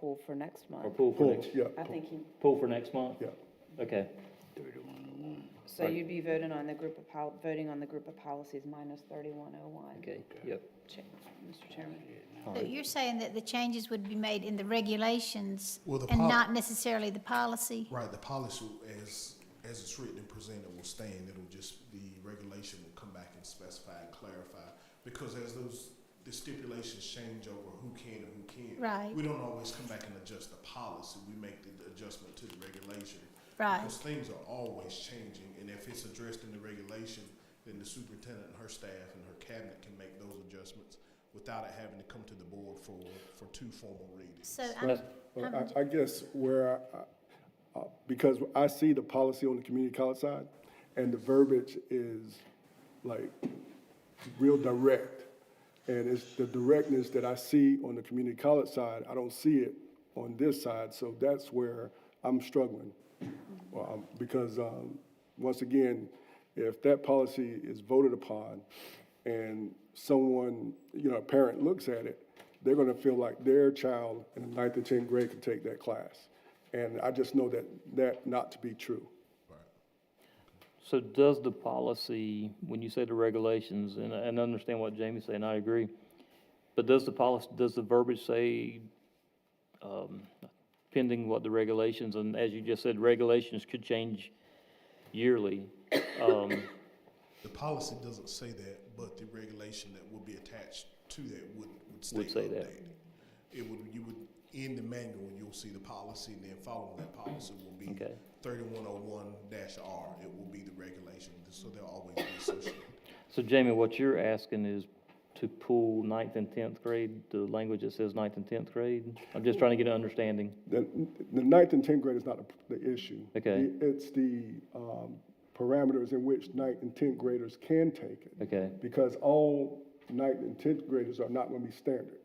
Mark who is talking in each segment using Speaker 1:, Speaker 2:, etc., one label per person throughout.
Speaker 1: pool for next
Speaker 2: Or
Speaker 1: month.
Speaker 2: pool for
Speaker 3: Pool,
Speaker 2: next,
Speaker 3: yeah,
Speaker 1: I
Speaker 3: pool,
Speaker 1: think you,
Speaker 2: pool for next month?
Speaker 3: yeah.
Speaker 2: Okay,
Speaker 1: so you'd be voting on the group of pol, voting on the group of policies minus thirty-one oh one.
Speaker 2: okay, yep.
Speaker 1: Mr. Chairman,
Speaker 4: So you're saying that the changes would be made in the regulations
Speaker 5: Well, the
Speaker 4: and
Speaker 5: pol-
Speaker 4: not necessarily the policy?
Speaker 5: Right, the policy as, as it's written and presented will stand, it'll just, the regulation will come back and specify and clarify. Because as those, the stipulations change over who can and who can't.
Speaker 4: Right.
Speaker 5: We don't always come back and adjust the policy, we make the adjustment to the regulation.
Speaker 4: Right.
Speaker 5: Because things are always changing, and if it's addressed in the regulation, then the superintendent and her staff and her cabinet can make those adjustments without it having to come to the board for, for two formal readings.
Speaker 4: So um, I'm,
Speaker 2: Well,
Speaker 3: Well, I, I guess where I- I, uh, because I see the policy on the community college side, and the verbiage is like real direct. And it's the directness that I see on the community college side, I don't see it on this side, so that's where I'm struggling. Um, Because, um, once again, if that policy is voted upon and someone, you know, a parent looks at it, they're gonna feel like their child in the ninth and tenth grade can take that class. And I just know that, that not to be true.
Speaker 2: So does the policy, when you say the regulations, and, and I understand what Jamie's saying, I agree, but does the policy, does the verbiage say, um, pending what the regulations, and as you just said, regulations could change yearly? Um,
Speaker 5: The policy doesn't say that, but the regulation that would be attached to that would, would stay
Speaker 2: Would say that.
Speaker 5: updated. It would, you would, in the manual, you'll see the policy, and then following that policy will be
Speaker 2: Okay.
Speaker 5: thirty-one oh one dash R. It will be the regulation, so they'll always be associated.
Speaker 2: So Jamie, what you're asking is to pool ninth and tenth grade, the language that says ninth and tenth grade? I'm just trying to get an understanding.
Speaker 3: The, the ninth and tenth grade is not the the issue.
Speaker 2: Okay.
Speaker 3: It's the, um, parameters in which ninth and tenth graders can take it.
Speaker 2: Okay,
Speaker 3: because all ninth and tenth graders are not going to be standard.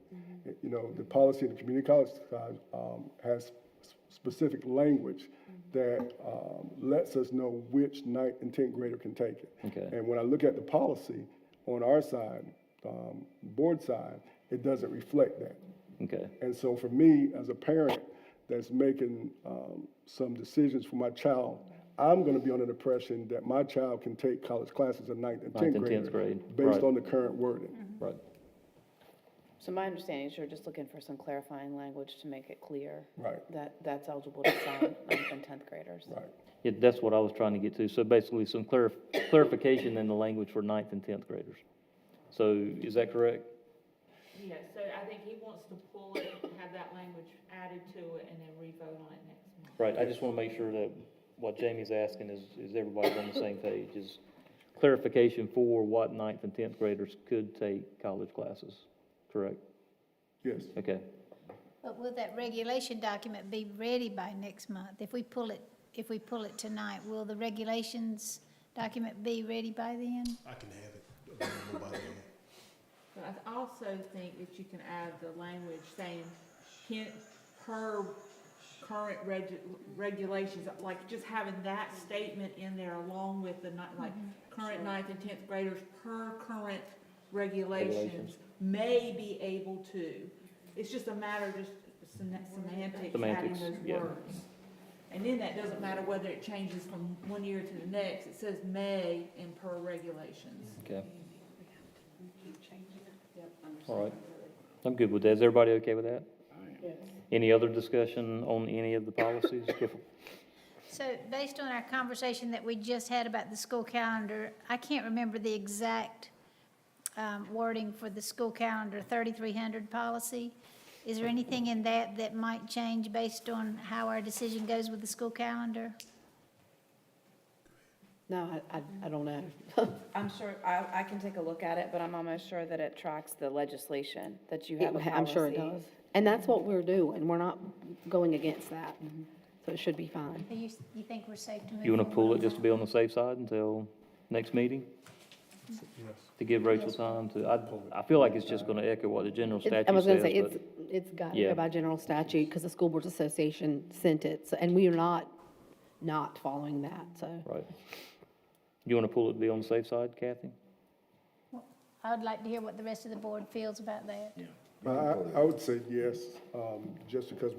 Speaker 3: You know, the policy of the community college side um, has s- specific language that um, lets us know which ninth and tenth grader can take it.
Speaker 2: Okay.
Speaker 3: And when I look at the policy on our side, um, board side, it doesn't reflect that.
Speaker 2: okay.
Speaker 3: And so for me, as a parent that's making um, some decisions for my child, I'm going to be under the impression that my child can take college classes in ninth and
Speaker 2: Ninth
Speaker 3: tenth
Speaker 2: and
Speaker 3: grade.
Speaker 2: 10th grade, right.
Speaker 3: Based on the current wording.
Speaker 2: Right.
Speaker 1: so my understanding is you're just looking for some clarifying language to make it clear.
Speaker 3: Right.
Speaker 1: That, that's eligible to sign ninth and tenth graders.
Speaker 3: Right.
Speaker 2: Yeah, that's what I was trying to get to. So basically, some clarif- clarification in the language for ninth and tenth graders. So is that correct?
Speaker 6: Yeah, so I think he wants to pull it, have that language added to it, and then re-vote on it next month.
Speaker 2: Right, I just want to make sure that what Jamie's asking is, is everybody's on the same page, is clarification for what ninth and tenth graders could take college classes, correct?
Speaker 3: Yes.
Speaker 2: Okay,
Speaker 4: but will that regulation document be ready by next month? If we pull it, if we pull it tonight, will the regulations document be ready by then?
Speaker 5: I can have it available by then.
Speaker 6: But I th- also think that you can add the language saying, can, per current reg- regulations, like just having that statement in there along with the ni- like, current ninth and tenth graders, per current regulations,
Speaker 2: Regulations.
Speaker 6: may be able to. It's just a matter of just sem- semantics, adding
Speaker 2: Semantics,
Speaker 6: those
Speaker 2: yeah.
Speaker 6: words. And then that doesn't matter whether it changes from one year to the next, it says may and per regulations.
Speaker 2: okay. All right, I'm good with that. Is everybody okay with that? Any other discussion on any of the policies? before-
Speaker 4: So based on our conversation that we just had about the school calendar, I can't remember the exact um, wording for the school calendar 3300 policy. Is there anything in that that might change based on how our decision goes with the school calendar?
Speaker 1: No, I, I, I don't know. I'm sure, I, I can take a look at it, but I'm almost sure that it tracks the legislation, that you have a
Speaker 7: It- I'm sure it
Speaker 1: policy.
Speaker 7: does. And that's what we're doing. We're not going against that. So it should be fine.
Speaker 4: Do you, you think we're safe to move?
Speaker 2: You want to pull
Speaker 4: forward
Speaker 2: it
Speaker 4: on
Speaker 2: just to
Speaker 4: that?
Speaker 2: be on the safe side until next meeting? To give Rachel time to, I, I feel like it's just going to echo what the general statute says.
Speaker 7: I was gonna say,
Speaker 2: but-
Speaker 7: it's, it's got to
Speaker 2: Yeah.
Speaker 7: go by general statute because the School Boards Association sent it. So- And we are not, not following that, so.
Speaker 2: Right. You want to pull it to be on the safe side, Kathy?
Speaker 4: I would like to hear what the rest of the board feels about that.
Speaker 3: But I, I would say yes, um, just because we